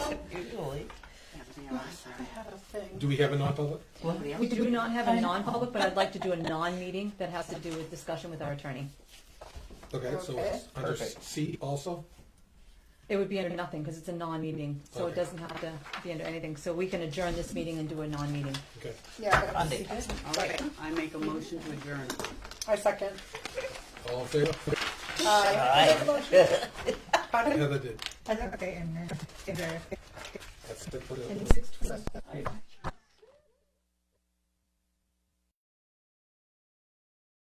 Do we have a non-public? We do not have a non-public, but I'd like to do a non-meeting that has to do with discussion with our attorney. Okay, so Okay. it's under Perfect. C also? It would be under nothing because it's a non-meeting, so it Okay. doesn't have to be under anything. So we can adjourn this meeting and do a non-meeting. Okay. Yeah, Monday. All right, I make a motion to adjourn. I second. All in favor? Pardon? Heather did. Okay, and, uh, if there- That's it for the- And six twenty-